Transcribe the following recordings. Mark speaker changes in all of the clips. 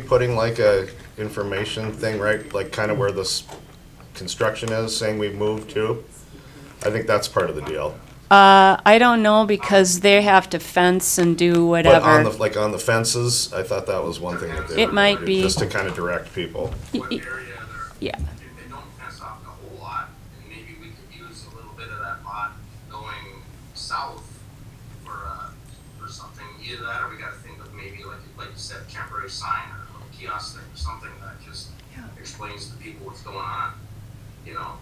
Speaker 1: Putting like a information thing, right, like kind of where this construction is, saying we moved to? I think that's part of the deal.
Speaker 2: I don't know because they have to fence and do
Speaker 1: But on the,
Speaker 2: whatever.
Speaker 1: like on the fences, I thought that was one thing that they.
Speaker 2: It
Speaker 1: were
Speaker 2: might
Speaker 1: gonna do,
Speaker 2: be-
Speaker 1: Just to kind of direct people.
Speaker 2: Y- y-
Speaker 3: what area they're,
Speaker 2: Yeah,
Speaker 3: if they don't fence off the whole lot, and maybe we could use a little bit of that lot going south for, uh, for something. Either that, or we gotta think of maybe like, like you said, temporary sign or a little kiosk thing or something that just explains to people what's going on, you know?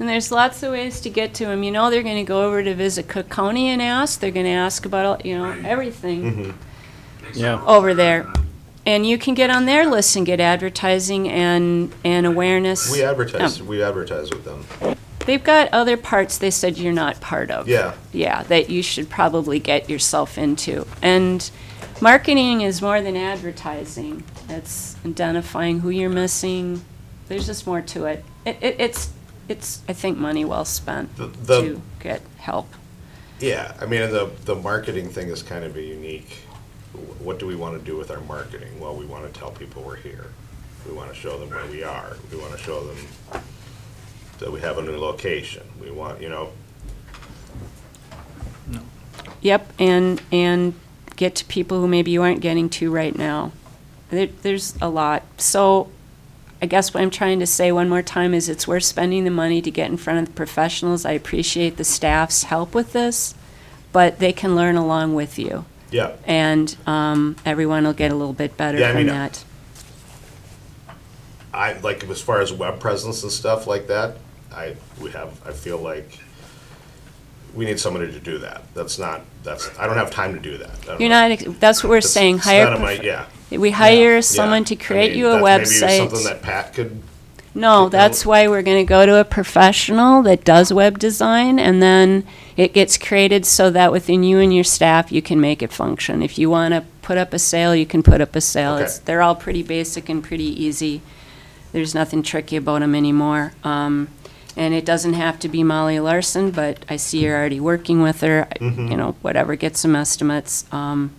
Speaker 2: and there's lots of ways to get to them. You know, they're gonna go over to visit Cook County and ask, they're gonna ask about, all- you know,
Speaker 1: Mm-hmm.
Speaker 2: everything
Speaker 3: Makes it
Speaker 4: Yeah.
Speaker 3: a little
Speaker 2: over there.
Speaker 3: better, but-
Speaker 2: And you can get on their list and get advertising and, and awareness.
Speaker 1: We
Speaker 2: Oh.
Speaker 1: advertise, we advertise with them.
Speaker 2: They've got other parts they said you're not part of.
Speaker 1: Yeah.
Speaker 2: Yeah, that you should probably get yourself into. And marketing is more than advertising. It's identifying who you're missing. There's just more to it. It, it it's it's I think money well spent
Speaker 1: The- the-
Speaker 2: to get help.
Speaker 1: Yeah, I mean, the, the marketing thing is kind of a unique, wh- what do we want to do with our marketing? Well, we want to tell people we're here. We want to show them where we are. We want to show them that we have a new location. We want, you know,
Speaker 2: Yep, and and get to people who maybe you aren't getting to right now. There, there's a lot. So I guess what I'm trying to say one more time is it's worth spending the money to get in front of the professionals. I appreciate the staff's help with this, but they can learn along with you.
Speaker 1: yeah.
Speaker 2: And um, everyone will get a little bit better
Speaker 1: Yeah, I
Speaker 2: from
Speaker 1: mean, uh,
Speaker 2: that.
Speaker 1: I, like, as far as web presence and stuff like that, I, we have, I feel like we need somebody to do that. That's not, that's, I don't have time to do that. I don't
Speaker 2: You're
Speaker 1: know.
Speaker 2: not. ex- That's what we're
Speaker 1: It's-
Speaker 2: saying.
Speaker 1: it's
Speaker 2: Hire.
Speaker 1: not in my-
Speaker 2: prof-
Speaker 1: Yeah.
Speaker 2: We hire
Speaker 1: yeah.
Speaker 2: someone to
Speaker 1: I
Speaker 2: create
Speaker 1: mean,
Speaker 2: you a
Speaker 1: that may be
Speaker 2: website.
Speaker 1: Something that Pat could Like,
Speaker 2: No,
Speaker 1: no-
Speaker 2: that's why we're going to go to a professional that does web design, and then it gets created so that within you and your staff, you can make it function. If you want to put up a sale, you can put up a sale.
Speaker 1: Okay.
Speaker 2: It's, they're all pretty basic and pretty easy. There's nothing tricky about them anymore. Um, and it doesn't have to be Molly Larson, but I see you're already working with her. I- You know, whatever, get some estimates. Um,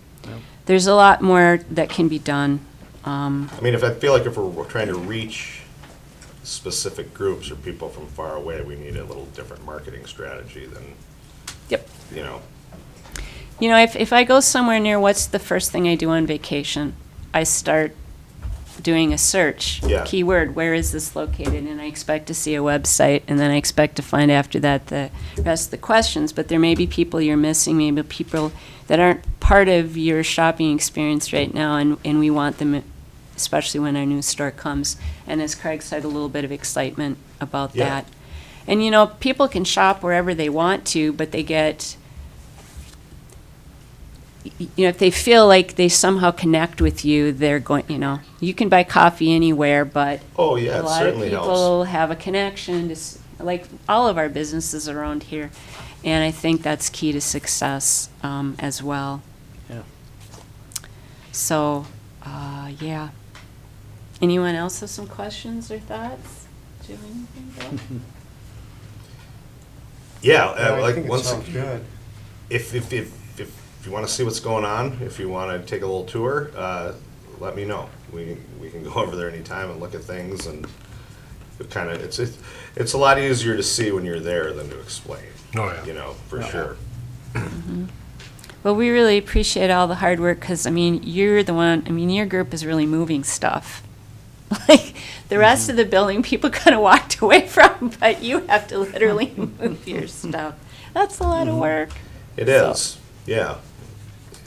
Speaker 2: There's a lot more that can be done.
Speaker 1: I mean, if I feel like if we're trying to reach specific groups or people from far away, we need a little different marketing strategy than,
Speaker 2: Yep.
Speaker 1: you know,
Speaker 2: You know, if, if I go somewhere near, what's the first thing I do on vacation? I start doing a search.
Speaker 1: Yeah.
Speaker 2: Keyword, where is this located? And I expect to see a website, and then I expect to find after that the rest of the questions. But there may be people you're missing, maybe people that aren't part of your shopping experience right now, and, and we want them, especially when our new store comes. And as Craig said, a little bit of excitement about
Speaker 1: Yeah.
Speaker 2: that. And you know, people can shop wherever they want to, but they get you know, if they feel like they somehow connect with you, they're going, you know, you can buy coffee anywhere, but
Speaker 1: oh, yeah,
Speaker 2: a
Speaker 1: it
Speaker 2: lot of
Speaker 1: certainly helps.
Speaker 2: people have a connection to, s- like, all of our businesses around here. And I think that's key to success, um, as well.
Speaker 4: Yeah.
Speaker 2: So, uh, yeah. Anyone else have some questions or thoughts? Do you have anything, Bill?
Speaker 1: Yeah,
Speaker 5: Yeah,
Speaker 1: uh,
Speaker 5: I
Speaker 1: like,
Speaker 5: think it
Speaker 1: once,
Speaker 5: sounds good.
Speaker 1: if, if, if, if you wanna see what's going on, if you wanna take a little tour, uh, let me know. We, we can go over there anytime and look at things and it kinda, it's, it's, it's a lot easier to see when you're there than to explain.
Speaker 6: Oh, yeah.
Speaker 1: You know, for sure.
Speaker 2: Well, we really appreciate all the hard work because, I mean, you're the one, I mean, your group is really moving stuff. Like the rest of the building, people kind of walked away from, but you have to literally move your stuff. That's a lot of
Speaker 1: Mm-hmm.
Speaker 2: work.
Speaker 1: It
Speaker 2: So-
Speaker 1: is, yeah.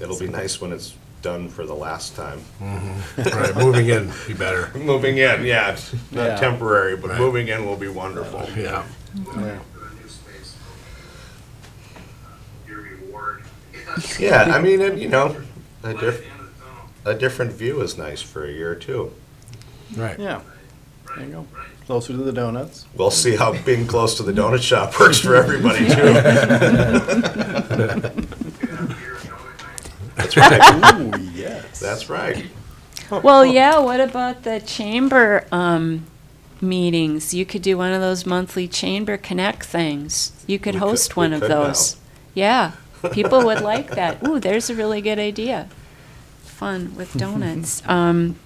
Speaker 1: It'll be nice when it's done for the last time.
Speaker 6: Right, moving in, be better.
Speaker 1: Moving in, yeah, it's not
Speaker 4: Yeah.
Speaker 1: temporary, but
Speaker 6: Right.
Speaker 1: moving in will be wonderful.
Speaker 6: Yeah.
Speaker 3: to a new space, uh, your reward.
Speaker 1: Yeah, I mean, and, you know, a,
Speaker 3: Light at
Speaker 1: diff-
Speaker 3: the end of the tunnel,
Speaker 1: a different view is nice for a year or two.
Speaker 6: Right.
Speaker 4: Yeah, there you go.
Speaker 3: right?
Speaker 4: Closer to the donuts.
Speaker 1: We'll see how being close to the donut shop works for everybody too.
Speaker 3: You have beer and donut night.
Speaker 4: Ooh, yes.
Speaker 1: That's right.
Speaker 2: Well, yeah, what about the chamber um, meetings? You could do one of those monthly chamber connect things. You could
Speaker 1: We could-
Speaker 2: host
Speaker 1: we
Speaker 2: one of
Speaker 1: could now.
Speaker 2: those. Yeah, people would like that. Ooh, there's a really good idea. fun with donuts. Um,